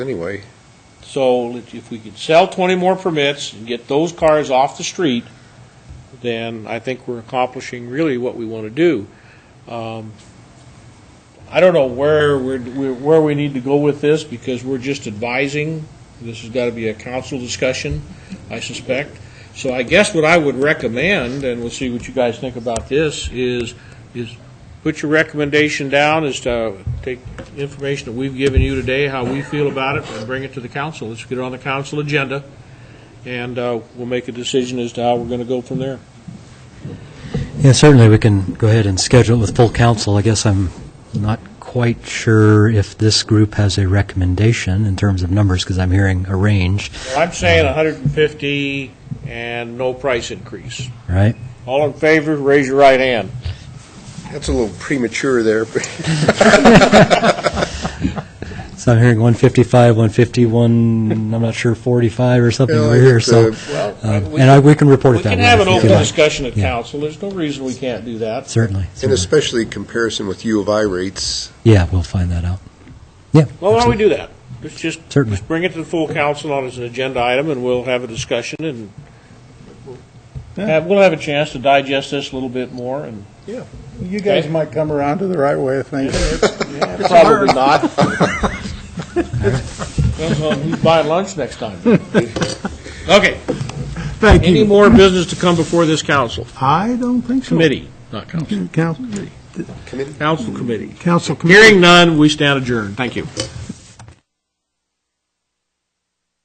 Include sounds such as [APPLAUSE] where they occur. anyway. So if we could sell 20 more permits and get those cars off the street, then I think we're accomplishing really what we want to do. Um, I don't know where, we're where we need to go with this, because we're just advising. This has got to be a council discussion, I suspect. So I guess what I would recommend, and we'll see what you guys think about this, is, is put your recommendation down as to take information that we've given you today, how we feel about it, and bring it to the council. Let's get it on the council agenda, and uh, we'll make a decision as to how we're going to go from there. Yeah, certainly, we can go ahead and schedule it with full council. I guess I'm not quite sure if this group has a recommendation in terms of numbers, because I'm hearing a range, I'm saying 150 and no price increase. right? All in favor, raise your right hand. That's a little premature there, [LAUGHS] but So I'm hearing 155, 151, I'm not sure, 45 or something Yeah, over here, it's, so, uh, Well, um, and I- we can report We it that can way have an if open you like. discussion at Yeah. council. There's no reason we can't do that. Certainly, and certainly. especially comparison with U of I rates. Yeah, we'll find that out. Yeah. Well, why don't we absolutely. do that? Let's just, Certainly. just bring it to the full council on as an agenda item, and we'll have a discussion, and we'll have, we'll have a chance to digest this a little bit more, and You guys might come around to the right way of thinking. probably not. Depends on who's buying lunch next time. Okay, Thank any you. more business to come before this council, I don't think so. committee, not council, Council, Come in. council committee? council committee. Hearing none, we stand adjourned. Thank you.